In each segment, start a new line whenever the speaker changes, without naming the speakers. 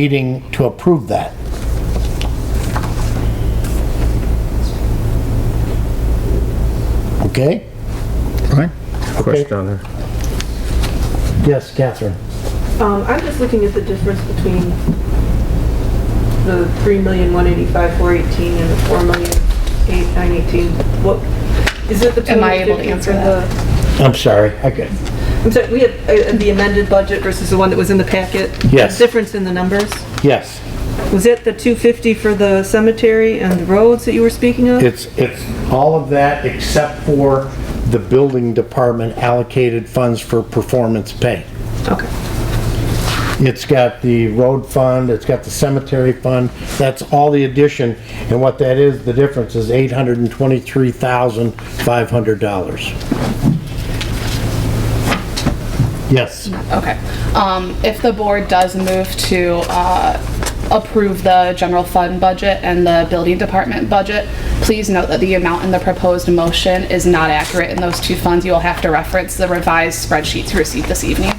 meeting to approve that. Okay?
Right.
Question on there.
Yes, Catherine.
Um, I'm just looking at the difference between the three million, one eighty-five, four eighteen, and the four million, eight, nine eighteen. What, is it the two
Am I
hundred
able to
fifty
answer
for the?
I'm sorry, I could,
I'm sorry, we have uh, the amended budget versus the one that was in the packet?
Yes.
Difference in the numbers?
yes,
Was it the two fifty for the cemetery and the roads that you were speaking of?
it's, it's all of that except for the building department allocated funds for performance pay.
Okay.
It's got the road fund, it's got the cemetery fund, that's all the addition, and what that is, the difference is eight hundred and twenty-three thousand, five hundred dollars. Yes,
Okay. Um, If the board does move to uh, approve the general fund budget and the building department budget, please note that the amount in the proposed motion is not accurate in those two funds. You will have to reference the revised spreadsheets received this evening.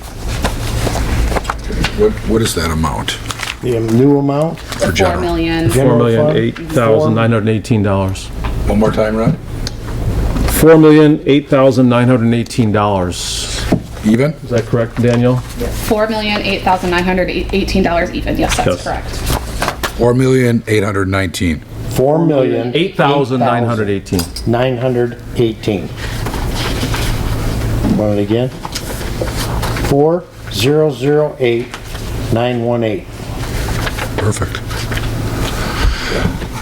What, what is that amount?
the new amount,
The
general.
Four million,
General
Four million
fund?
eight thousand nine hundred and eighteen dollars.
One more time, Ron?
Four million eight thousand nine hundred and eighteen dollars.
Even?
Is that correct, Daniel?
four million, eight thousand nine hundred eighteen dollars even. Yes,
Yes.
that's correct.
Four million, eight hundred and nineteen.
four million.
Eight thousand nine hundred eighteen.
Nine hundred eighteen. Want it again? Four, zero, zero, eight, nine, one, eight.
Perfect.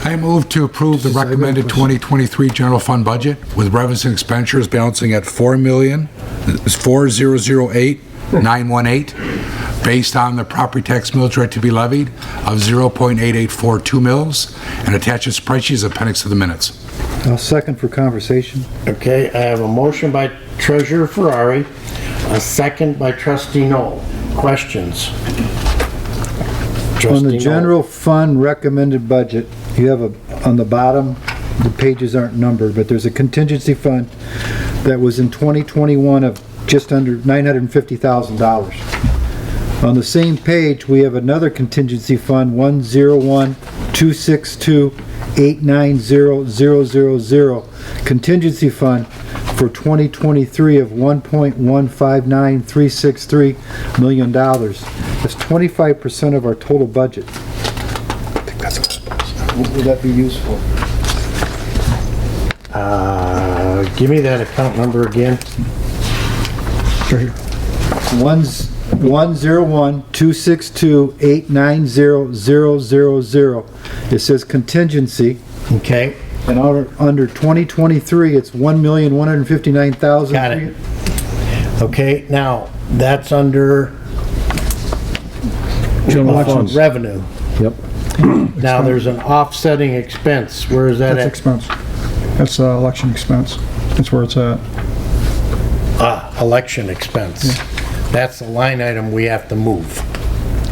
I move to approve the recommended 2023 general fund budget with revenues and expenditures balancing at 4 million, it's 4008, 918, based on the property tax millage rate to be levied of 0.8842 mils, and attached as spreadsheet as appendix to the minutes.
I'll second for conversation.
Okay, I have a motion by Treasurer Ferrari, a second by Trustee Noel. Questions?
On
Trustee
the
Noel.
general fund recommended budget, you have a, on the bottom, the pages aren't numbered, but there's a contingency fund that was in 2021 of just under $950,000. On the same page, we have another contingency fund, 101-262-890000, contingency fund for 2023 of $1.159363 million. dollars. That's 25% of our total budget. I think that's a lot. What Would that be useful?
Uh, give me that account number again.
One's 101-262-890000. It says contingency.
Okay,
And under, under 2023, it's 1,159,000.
Got it. okay, now, that's under
General funds.
revenue.
Yep.
Now, there's an offsetting expense. Where is that
That's
at?
expense. That's uh, election expense. That's where it's at.
Ah, election expense. That's the line item we have to move.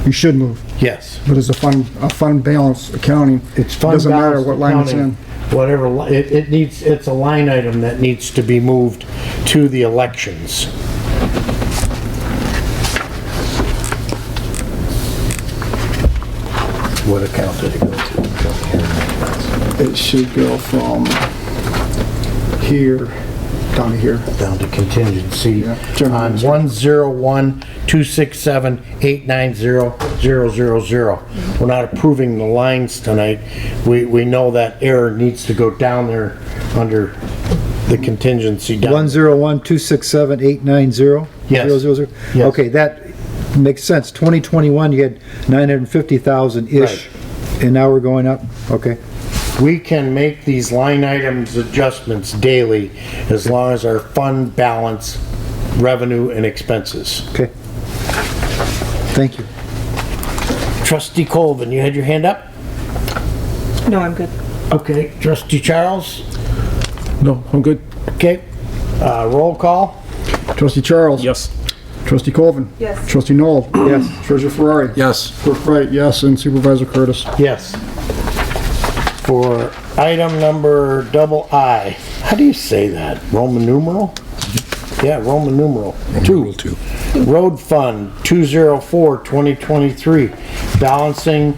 You should move,
Yes.
but as a fund, a fund balance accounting, it
It's fund
doesn't matter
balance
what line it's in.
accounting, Whatever, li- it, it needs, it's a line item that needs to be moved to the elections. What account did it go to?
It should go from here down to here.
Down to contingency
Yeah, general
on
contingency.
one zero one two six seven eight nine zero zero zero zero. We're not approving the lines tonight. We, we know that error needs to go down there under the contingency down.
101-267-890?
Yes.
000?
Yes.
Okay, that makes sense. 2021, you had 950,000-ish, and now we're going up? Okay.
We can make these line items adjustments daily as long as our fund balance, revenue and expenses.
Okay. Thank you.
Trustee Colvin, you had your hand up?
No, I'm good.
Okay. Trustee Charles?
No, I'm good.
Okay. Uh, roll call?
Trustee Charles?
Yes.
Trustee Colvin?
Yes.
Trustee Noel? Yes. Treasurer Ferrari?
Yes.
Clerk Wright, yes, and Supervisor Curtis.
Yes. For item number double I, how do you say that? Roman numeral? Yeah, Roman numeral.
Rule two.
Road Fund, 204-2023, balancing